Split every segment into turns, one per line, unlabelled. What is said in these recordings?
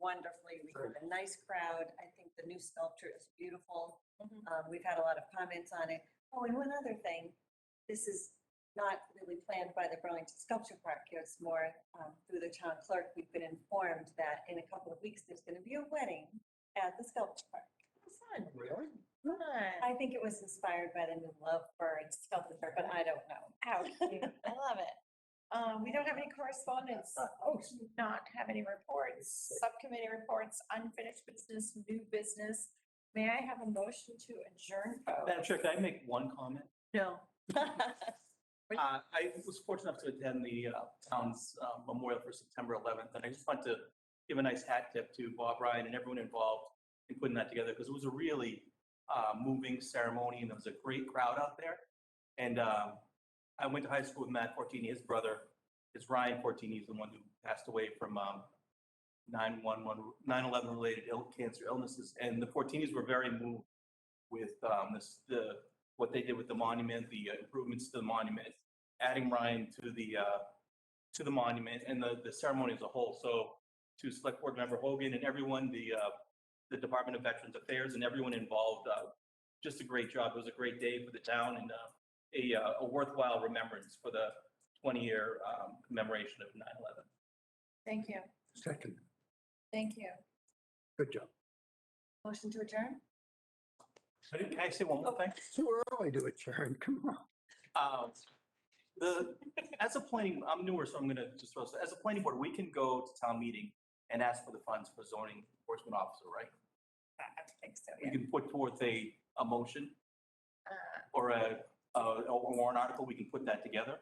wonderfully. We have a nice crowd. I think the new sculpture is beautiful.
Mhm.
Um, we've had a lot of comments on it. Oh, and one other thing, this is not really planned by the Burlington Sculpture Park. It's more, um, through the town clerk. We've been informed that in a couple of weeks, there's gonna be a wedding at the sculpture park.
Fun,
Really?
fun.
I think it was inspired by the new Lovebird sculpture, park, but I don't know.
How cute. I love it. Um, we don't have any correspondence. Oh, we do not have any reports, subcommittee reports, unfinished business, new business. May I have a motion to adjourn? folks?
Madam Chair, can I make one comment?
No. Please.
Uh, I was fortunate enough to attend the uh, town's uh, memorial for September 11th, and I just want to give a nice hat tip to Bob Ryan and everyone involved in putting that together, because it was a really uh, moving ceremony, and there was a great crowd out there. And um, I went to high school with Matt Fortini, his brother, is Ryan Fortini, he's the one who passed away from um, 911, 9/11-related ill, cancer illnesses. And the Fortinis were very moved with um, this, the what they did with the monument, the uh, improvements to the monument, adding Ryan to the, uh, to the monument and the, the ceremony as a whole. So to Select Board Member Hogan and everyone, the, uh, the Department of Veterans Affairs and everyone involved, uh, just a great job. It was a great day for the town and, uh, a, uh, a worthwhile remembrance for the 20-year, um, commemoration of 9/11.
Thank you,
Second,
thank you.
good job.
Motion to adjourn?
So Can I say one more thing?
It's Too early to adjourn, come on.
Um, The, as a planning, I'm newer, so I'm going to just throw, this- as a planning board, we can go to town meeting and ask for the funds for zoning enforcement officer, right?
I I think so,
We
yeah.
can put forth a, a motion
Uh,
or a, a a warrant article, we can put that together.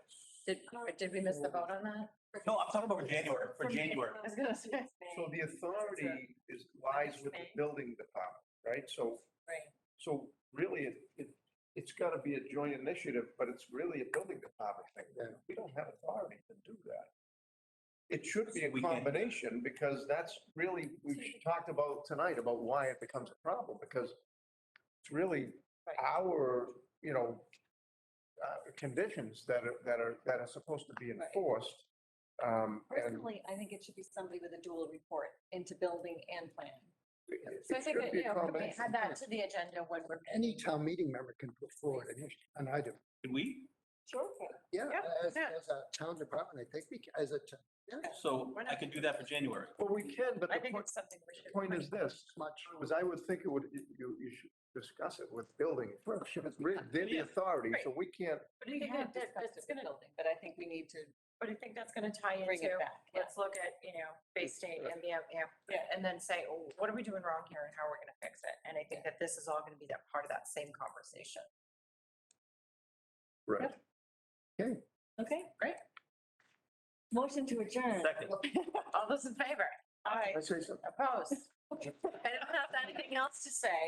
Did, did we miss the vote on that?
No, I'm talking about for January, for January.
I was gonna say.
So the authority is, lies with the
Management.
building department, right? So,
Right.
so really, it, it, it's gotta be a joint initiative, but it's really a building department thing.
Yeah.
We don't have authority to do that. It should be a
We can-
combination, because that's really, we've talked about tonight, about why it becomes a problem, because it's really
Right.
our, you know, uh, conditions that are, that are, that are supposed to be
Right.
enforced. Um, and
Personally, I think it should be somebody with a dual report into building and planning.
it
So I
it
think,
should
that,
be
you
a
know, we
combination.
add that to the agenda when we're.
Any town meeting member can put forward an issue, an item.
Can we?
Sure.
Yeah,
Yeah,
as,
yeah.
as a town department, I think we, ca- as a, t-
So I could do that for January.
Well, we can, but
I
the
think
point,
it's something we
the
should.
point is this,
much.
was I would think it would, you, you you should discuss it with building first. It's re- They're the
Yeah.
authority, so we can't,
But
We
we
have
have
that-
discussed
that's
it with
gonna-
building, but I think we need to
But I think that's gonna tie
bring
into,
it back. yeah.
let's look at, you know, Bay State and the, M- yeah,
Yeah.
and then say, oh, what are we doing wrong here and how are we gonna fix it? And I think that this is all gonna be that part of that same conversation.
right.
Okay,
Great.
motion to adjourn.
Second.
All those in favor? Aye.
I say something.
Opposed? I don't have anything else to say.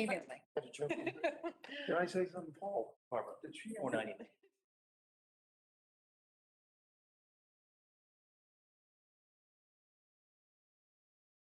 Evenly.
Can I say something, Paul? Barbara, did she,
Or not even.